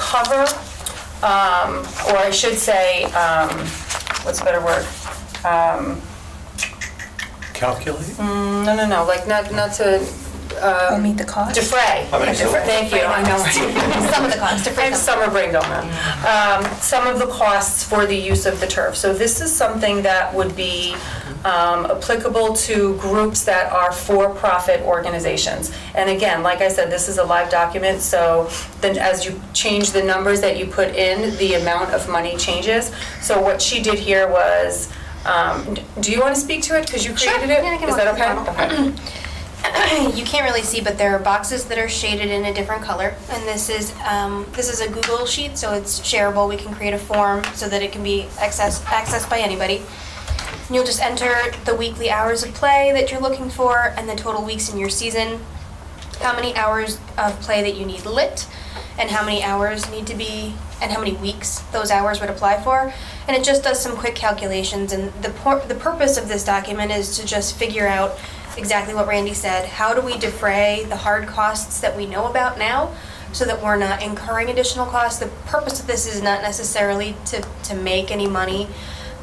cover, um, or I should say, um, what's a better word? Calculate? No, no, no, like not, not to Or meet the cost? defray. I mean, so- Thank you, I know. Some of the costs, different. And summer brain don't know. Um, Some of the costs for the use of the turf. So this is something that would be um, applicable to groups that are for-profit organizations. And again, like I said, this is a live document, so then as you change the numbers that you put in, the amount of money changes. So what she did here was, um, d- do you want to speak to it? Because you Sure. created it? Yeah, I can Is that walk through the okay? Okay. you can't really see, but there are boxes that are shaded in a different color. And this is um, this is a Google sheet, so it's shareable. We can create a form so that it can be access, accessed by anybody. And you'll just enter the weekly hours of play that you're looking for, and the total weeks in your season. How many hours of play that you need lit, and how many hours need to be, and how many weeks those hours would apply for. And it just does some quick calculations. And the por- the purpose of this document is to just figure out exactly what Randy said. How do we defray the hard costs that we know about now so that we're not incurring additional costs? The purpose of this is not necessarily to, to make any money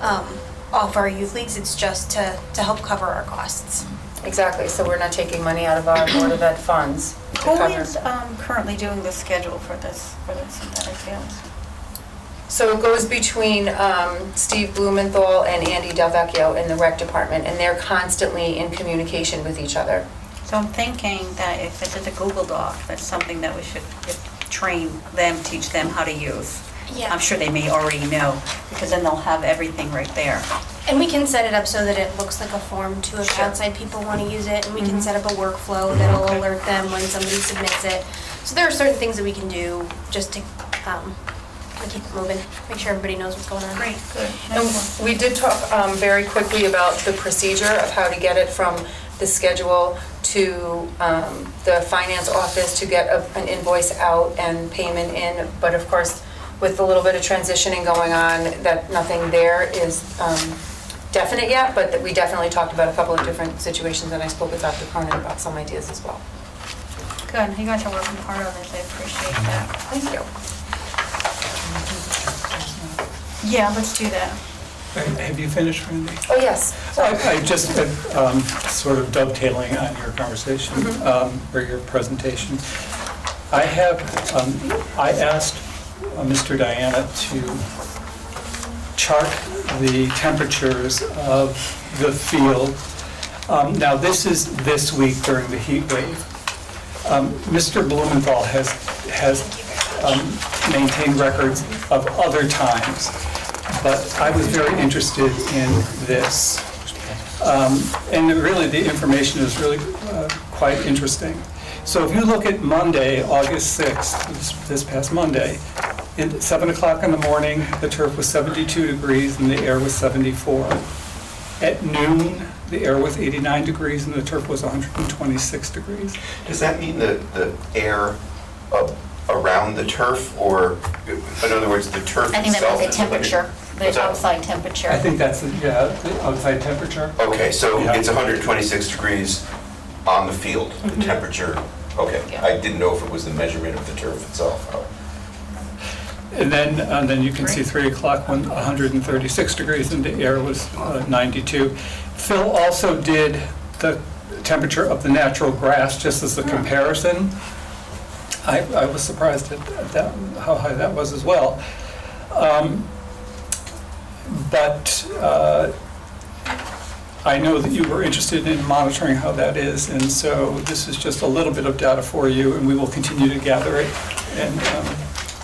um, off our youth leagues, it's just to, to help cover our costs. Exactly, so we're not taking money out of our Board of Ed funds to Who cover. is um, currently doing the schedule for this, for the synthetic fields? So it goes between um, Steve Blumenthal and Andy Delvecchio in the rec department, and they're constantly in communication with each other. So I'm thinking that if it's in the Google Doc, that's something that we should train them, teach them how to use. Yeah. I'm sure they may already know, because then they'll have everything right there. And we can set it up so that it looks like a form too if outside people want to use it, and we can set up a workflow that'll alert them when somebody submits it. So there are certain things that we can do just to um, to keep it moving, make sure everybody knows what's going on. good. And we did talk um, very quickly about the procedure of how to get it from the schedule to um, the finance office to get a- an invoice out and payment in. But of course, with a little bit of transitioning going on, that nothing there is um, definite yet, but that we definitely talked about a couple of different situations, and I spoke with Dr. Cronin about some ideas as well. Good, you guys are working hard on this, I appreciate that. Thank you. Yeah, let's do that. Have you finished, Randy? Oh, yes. I I just, um, sort of dovetailing on your conversation, um, or your presentation. I have, um, I asked uh, Mr. Diana to chart the temperatures of the field. Um, Now, this is this week during the heat wave. Um, Mr. Blumenthal has, has um, maintained records of other times, but I was very interested in this. Um, And really, the information is really uh, quite interesting. So if you look at Monday, August 6th, this- this past Monday, at 7 o'clock in the morning, the turf was 72 degrees and the air was 74. At noon, the air was 89 degrees and the turf was 126 degrees. Does that mean the, the air up around the turf, or, in other words, the turf itself? I think that was the is like a- temperature, What's the that? outside temperature. I think that's, yeah, the outside temperature. Okay, so Yeah. it's 126 degrees on the field, the temperature, okay. Mm-hmm. Yeah. I didn't know if it was the measurement of the turf itself. Oh. And then, and then you can see 3 o'clock, when 136 degrees, and the air was uh, 92. Phil also did the temperature of the natural grass, just as a comparison. I, I was surprised at at that, how high that was as well. Um, But uh, I know that you were interested in monitoring how that is, and so this is just a little bit of data for you, and we will continue to gather it and um,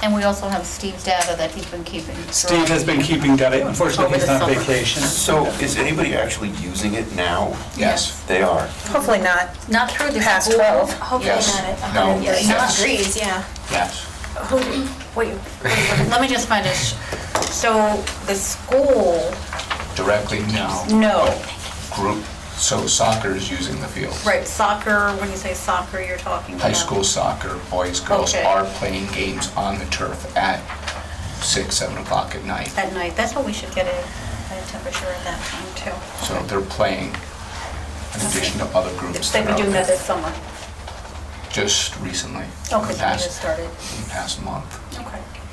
And we also have Steve's data that he's been keeping. Steve has been keeping data, unfortunately, he's on vacation. So is anybody actually using it now? Yes. They are. Hopefully not. Not through the. Past Google. 12. Hopefully Yes. not at No. 100 degrees. Yes. degrees, yeah. Yes. Wait, Let me just find a, sh- so the school, directly now. no. Group, so soccer is using the field. Right, soccer, when you say soccer, you're talking about? High school soccer, boys, girls Okay. are playing games on the turf at six, seven o'clock at night. At night, that's what we should get a, a temperature at that time too. So they're playing in addition to other groups. They've been are out doing that there. this summer. Just recently. in the Okay, so they past- just started. in the Past month.